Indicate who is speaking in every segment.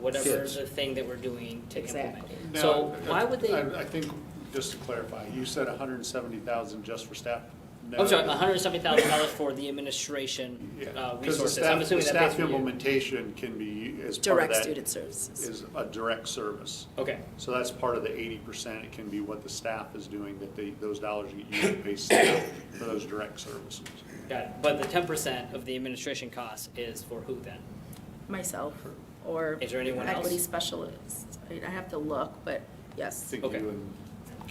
Speaker 1: whatever
Speaker 2: Fits.
Speaker 1: the thing that we're doing to implement.
Speaker 3: Exactly.
Speaker 4: Now,
Speaker 1: So why would they,
Speaker 4: I I think, just to clarify, you said hundred and seventy thousand just for staff?
Speaker 1: I'm sorry, uh,
Speaker 4: No.
Speaker 1: hundred and seventy thousand dollars for the administration
Speaker 4: Yeah,
Speaker 1: uh,
Speaker 4: 'cause the
Speaker 1: resources,
Speaker 4: staff-
Speaker 1: I'm assuming
Speaker 4: the
Speaker 1: that pays
Speaker 4: Staff
Speaker 1: for you.
Speaker 4: implementation can be, as part of
Speaker 3: Direct
Speaker 4: that,
Speaker 3: student services.
Speaker 4: is a direct service.
Speaker 1: Okay,
Speaker 4: So that's part of the eighty percent, it can be what the staff is doing, that they, those dollars get used to pay staff for those direct services.
Speaker 1: got it, but the ten percent of the administration cost is for who then?
Speaker 3: Myself or
Speaker 1: Is there anyone else?
Speaker 3: equity specialists. I I have to look, but
Speaker 4: I
Speaker 3: yes,
Speaker 4: think
Speaker 1: Okay.
Speaker 4: you and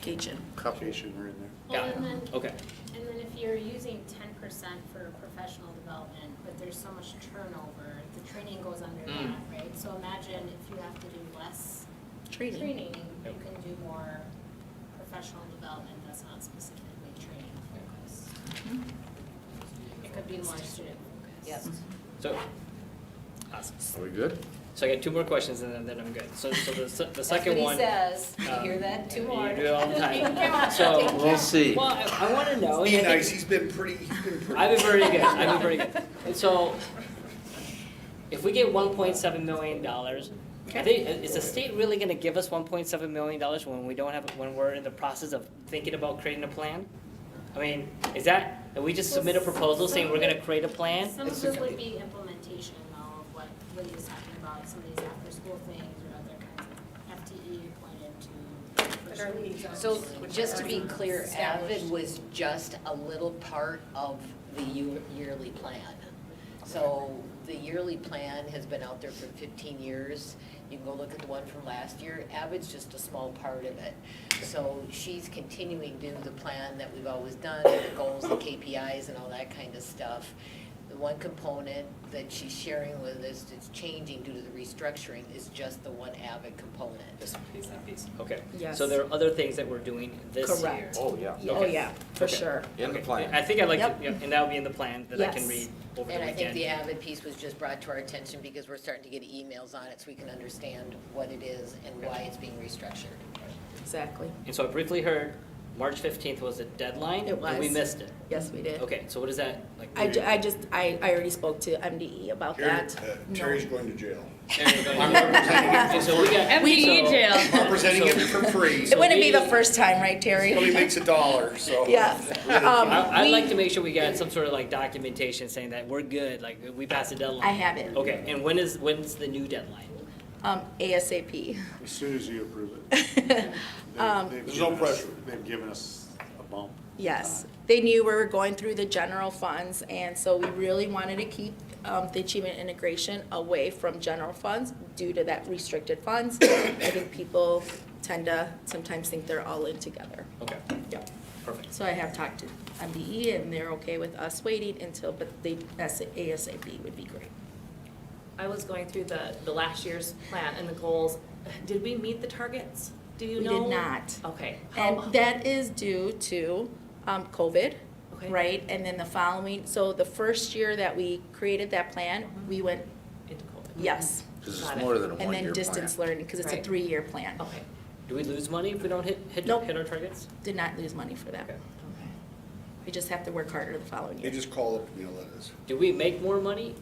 Speaker 3: Cajun.
Speaker 4: Cation are in there.
Speaker 5: Well,
Speaker 1: Got
Speaker 5: and then,
Speaker 1: Okay,
Speaker 5: and then if you're using ten percent for professional development, but there's so much turnover, the training goes under
Speaker 1: Mm.
Speaker 5: that, right? So imagine if you have to do less
Speaker 3: Training.
Speaker 5: training, you
Speaker 1: Yep.
Speaker 5: can do more professional development that's not specifically training focused. It could be more student focused.
Speaker 6: Mm-hmm. Yes.
Speaker 1: so, awesome.
Speaker 2: Are we good?
Speaker 1: So I got two more questions and then, then I'm good. So, so the, se- the
Speaker 6: That's what
Speaker 1: second
Speaker 6: he
Speaker 1: one.
Speaker 5: uh,
Speaker 6: says. You
Speaker 1: um,
Speaker 6: hear that? Two
Speaker 1: you
Speaker 6: more.
Speaker 1: do it all the time.
Speaker 6: Come on.
Speaker 1: So-
Speaker 2: We'll see.
Speaker 1: Well, I, I wanna know.
Speaker 7: Be
Speaker 1: and I
Speaker 7: nice,
Speaker 1: think-
Speaker 7: he's been pretty, he's been pretty.
Speaker 1: I've been very good, I've been very good. And so, if we get one point seven million dollars, I think, is the state really gonna give us one point seven million dollars when we don't have, when we're in the process of thinking about creating a plan? I mean, is that, if we just submit a proposal saying we're gonna create a plan?
Speaker 5: Some of
Speaker 7: It's
Speaker 5: this
Speaker 7: a-
Speaker 5: would be implementation though, of what Lydia's talking about, some of these after-school things or other kinds of FTE appointed to.
Speaker 6: So just to be clear, Avid was just a little part of the year- yearly plan. So the yearly plan has been out there for fifteen years. You can go look at the one from last year. Avid's just a small part of it. So she's continuing to do the plan that we've always done, the goals, the KPIs and all that kind of stuff. The one component that she's sharing with us that's changing due to the restructuring is just the one Avid component.
Speaker 1: Just piece by piece, okay.
Speaker 3: Yes.
Speaker 1: So there are other things that we're doing this year.
Speaker 3: Correct.
Speaker 2: Oh, yeah.
Speaker 3: Oh, yeah, for
Speaker 1: Okay.
Speaker 3: sure.
Speaker 2: In the
Speaker 1: Okay,
Speaker 2: plan.
Speaker 1: I think I'd like to,
Speaker 3: Yep.
Speaker 1: yeah, and that'll be in the plan that I can
Speaker 3: Yes.
Speaker 1: read over the
Speaker 6: And I think the
Speaker 1: weekend.
Speaker 6: Avid piece was just brought to our attention because we're starting to get emails on it, so we can understand what it is and why it's being restructured.
Speaker 3: Exactly.
Speaker 1: And so I briefly heard March fifteenth was the deadline.
Speaker 3: It
Speaker 1: And we
Speaker 3: was.
Speaker 1: missed it.
Speaker 3: Yes, we did.
Speaker 1: Okay, so what is that, like?
Speaker 3: I, ju- I just, I, I already spoke to MDE about
Speaker 7: Terry-
Speaker 3: that.
Speaker 7: uh,
Speaker 3: No.
Speaker 7: Terry's going to jail.
Speaker 1: There you go. And so we got. so-
Speaker 7: I'm presenting him for free,
Speaker 3: It
Speaker 7: so
Speaker 3: wouldn't be the
Speaker 1: we-
Speaker 3: first time, right,
Speaker 7: he
Speaker 3: Terry?
Speaker 7: only makes a dollar, so.
Speaker 3: Yes. Um,
Speaker 1: I, I'd
Speaker 3: we-
Speaker 1: like to make sure we got some sort of like documentation saying that we're good, like we passed the deadline.
Speaker 3: I have it.
Speaker 1: Okay, and when is, when's the new deadline?
Speaker 3: Um, ASAP.
Speaker 4: As soon as you approve it. They- they've
Speaker 7: There's no
Speaker 4: given us-
Speaker 7: pressure.
Speaker 4: They've given us a bump.
Speaker 3: Yes, they knew we were going through the general funds, and so we really wanted to keep um, the achievement integration away from general funds due to that restricted funds. I think people tend to sometimes think they're all in together.
Speaker 1: Okay,
Speaker 3: Yep.
Speaker 1: perfect.
Speaker 3: So I have talked to MDE, and they're okay with us waiting until, but they, ASAP would be great.
Speaker 8: I was going through the, the last year's plan and the goals. Did we meet the targets? Do you
Speaker 3: We
Speaker 8: know?
Speaker 3: did not.
Speaker 8: Okay. How-
Speaker 3: And that is due to um, COVID,
Speaker 8: Okay.
Speaker 3: right? And then the following, so the first year that we created that plan, we went,
Speaker 8: Into COVID.
Speaker 3: yes.
Speaker 2: Because
Speaker 8: Got
Speaker 2: it's
Speaker 8: it.
Speaker 2: more than a
Speaker 3: And then
Speaker 2: one-year plan.
Speaker 3: distance learning, because it's a
Speaker 8: Right. Oh.
Speaker 3: three-year plan.
Speaker 8: Okay,
Speaker 1: Do we lose money if we don't hit, hit,
Speaker 3: Nope.
Speaker 1: hit our targets?
Speaker 3: Did not lose money for that.
Speaker 1: Okay.
Speaker 8: okay.
Speaker 3: We just have to work harder the following
Speaker 7: They
Speaker 3: year.
Speaker 7: just call up and yell at us.
Speaker 1: Do we make more money?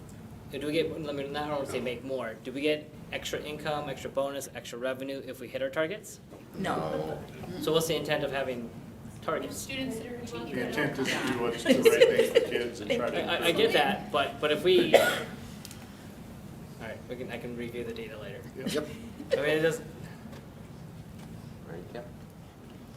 Speaker 1: Or Do we get, let me, not only say make more, do we get extra income, extra bonus, extra revenue if we hit our targets?
Speaker 3: No,
Speaker 1: So what's the intent of having targets?
Speaker 5: Students that are achieving.
Speaker 4: Uh, The intent is to do what's the right thing for kids and try
Speaker 1: I,
Speaker 4: to.
Speaker 1: I, I get that, but, but if we, alright, we can, I can review the data later.
Speaker 4: Yep.
Speaker 2: Yep.
Speaker 1: I mean, it does,
Speaker 2: Right, yep.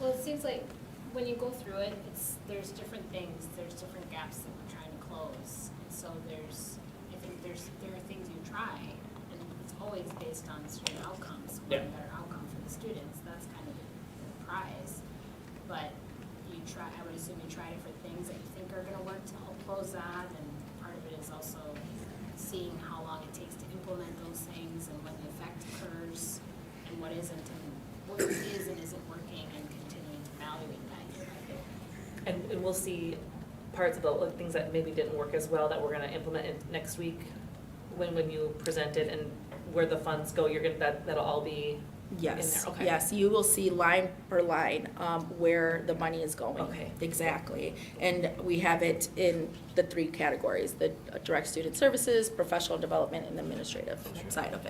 Speaker 5: Well, it seems like when you go through it, it's, there's different things, there's different gaps that we're trying to close. And so there's, I think there's, there are things you try, and it's always based on certain outcomes,
Speaker 1: Yeah.
Speaker 5: one better outcome for the students, that's kind of the prize. But you try, I would assume you try different things that you think are gonna work to help close that, and part of it is also seeing how long it takes to implement those things and when the effect occurs and what isn't, and what is and isn't working, and continuing to evaluate that year by year.
Speaker 8: And, and we'll see parts of the, like, things that maybe didn't work as well that we're gonna implement in next week when, when you present it and where the funds go, you're gonna, that, that'll all be
Speaker 3: yes,
Speaker 8: there, okay.
Speaker 3: yes, you will see line per line um, where the money is going.
Speaker 8: Okay.
Speaker 3: Exactly, and we have it in the three categories, the direct student services, professional development, and administrative side of it.